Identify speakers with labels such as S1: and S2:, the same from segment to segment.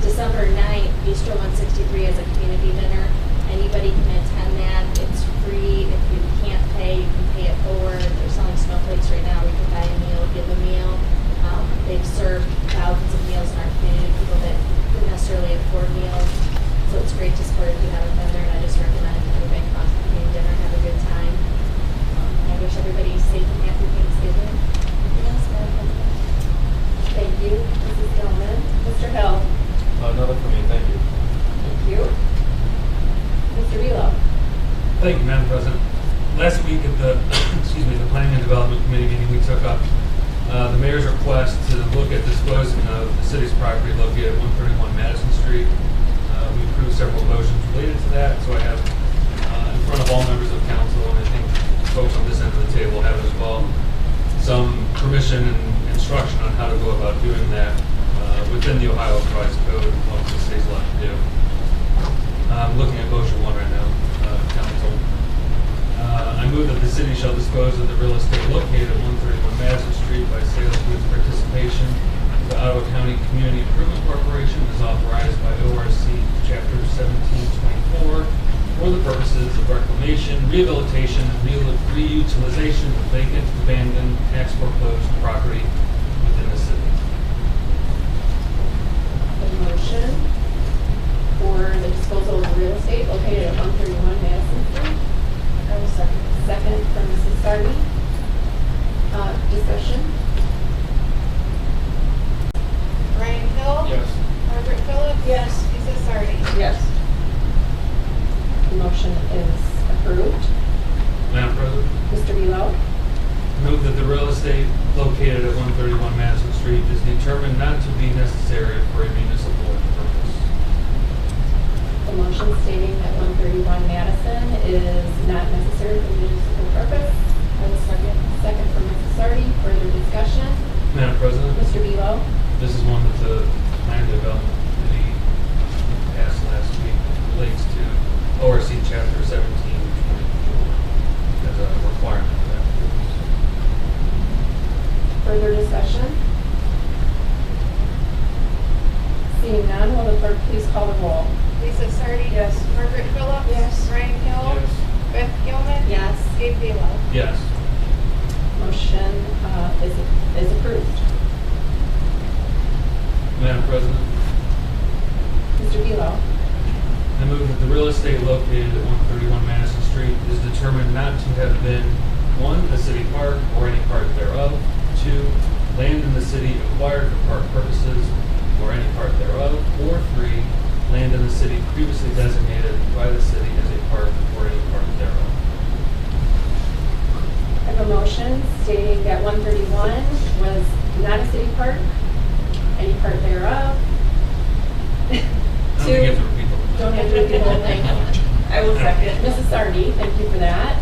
S1: December 9th, Bistro 163 has a community dinner. Anybody can attend that. It's free. If you can't pay, you can pay it forward. They're selling snowflakes right now. We can buy a meal, give a meal. Um, They've served thousands of meals in our community, people that couldn't necessarily afford meals. So it's great to support if you haven't been there, and I just recommend everybody across the community dinner, have a good time. Um, I wish everybody safe and happy Thanksgiving. Anything else, Madam President? Thank you, Mrs. Gilman. Mr. Hill?
S2: Uh, Another for me, thank you.
S1: Thank you. Mr. Velo?
S3: Thank you, Madam President. Last week at the, excuse me, the Planning and Development Committee meeting, we took up uh, the mayor's request to look at disposing of the city's property located at 131 Madison Street. Uh, We approved several motions related to that, so I have uh, in front of all members of council, and I think folks on this end of the table have as well, some permission and instruction on how to go about doing that uh, within the Ohio Price Code, what the state's allowed to do. I'm looking at motion one right now, uh, council. Uh, I move that the city shall dispose of the real estate located at 131 Madison Street by sales through its participation to Ottawa County Community Improvement Corporation as authorized by ORC Chapter 1724 for the purposes of reclamation, rehabilitation, and reu- reutilization of vacant, abandoned, tax foreclosed property within the city.
S1: The motion for the disposal of real estate located at one thirty-one Madison Street. I will second. Second from Mrs. Sardi. Uh, discussion?
S4: Ryan Hill. Margaret Phillips.
S5: Yes.
S4: Lisa Sardi.
S5: Yes.
S1: The motion is approved.
S3: Madam President?
S1: Mr. Velo?
S3: Move that the real estate located at 131 Madison Street is determined not to be necessary for a municipal purpose.
S1: The motion stating that one thirty-one Madison is not necessary for municipal purpose. I will second. Second from Mrs. Sardi. Further discussion?
S3: Madam President,
S1: Mr. Velo?
S3: this is one that the plan development committee passed last week relates to ORC Chapter 1724 as a requirement of that.
S1: Further discussion? Seeing none, will the clerk please call the roll?
S4: Lisa Sardi.
S5: Yes.
S4: Margaret Phillips.
S5: Yes.
S4: Ryan Hill. Beth Gilman.
S1: Yes.
S4: Gabe Velo.
S3: Yes.
S1: Motion uh, is is approved.
S3: Madam President,
S1: Mr. Velo?
S3: I move that the real estate located at 131 Madison Street is determined not to have been, one, a city park or any part thereof, two, land in the city acquired for park purposes or any part thereof, or three, land in the city previously designated by the city as a park or any part thereof.
S1: I have a motion stating that 131 was not a city park, any part thereof.
S3: I don't think you have
S1: Two,
S3: to repeat the whole thing.
S1: don't have to read the whole thing. I will second. Mrs. Sardi, thank you for that.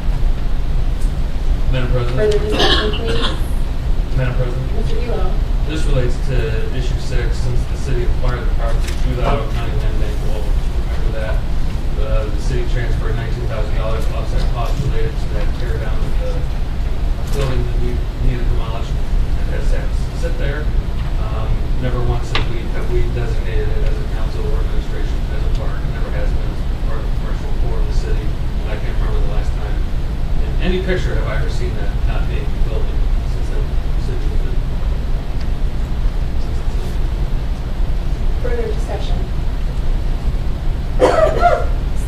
S3: Madam
S1: Further
S3: President,
S1: discussion, please.
S3: Madam President,
S1: Mr. Velo?
S3: this relates to issue six, since the city acquired the property through the Ottawa County Land Bank, well, remember that. Uh, the city transferred nineteen thousand dollars of offset costs related to that tear down of the building that we needed demolished and has sat, sit there. Um, never once have we, have we designated it as a council or administration as a park, It never has been as part of the commercial core of the city. And I can't remember the last time in any picture have I ever seen that not being a building since that city was built. Since it's been-
S1: Further discussion?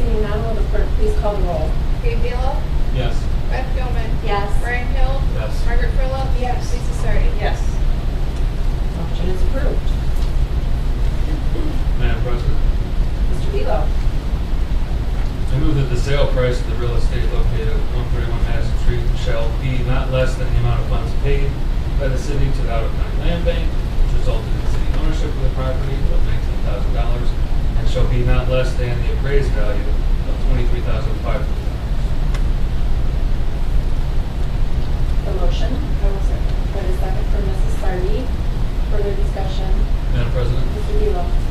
S1: Seeing none, will the clerk please call the roll?
S4: Gabe Velo.
S3: Yes.
S4: Beth Gilman.
S1: Yes.
S4: Ryan Hill.
S3: Yes.
S4: Margaret Phillips.
S5: Yes.
S4: Lisa Sardi.
S5: Yes.
S1: Motion is approved.
S3: Madam President,
S1: Mr. Velo?
S3: I move that the sale price of the real estate located at 131 Madison Street shall be not less than the amount of funds paid by the city to the Ottawa County Land Bank, which resulted in city ownership of the property of $19,000, and shall be not less than the appraised value of $23,500.
S1: The motion? I will second. Got a second from Mrs. Sardi. Further discussion?
S3: Madam President,
S1: Mr. Velo?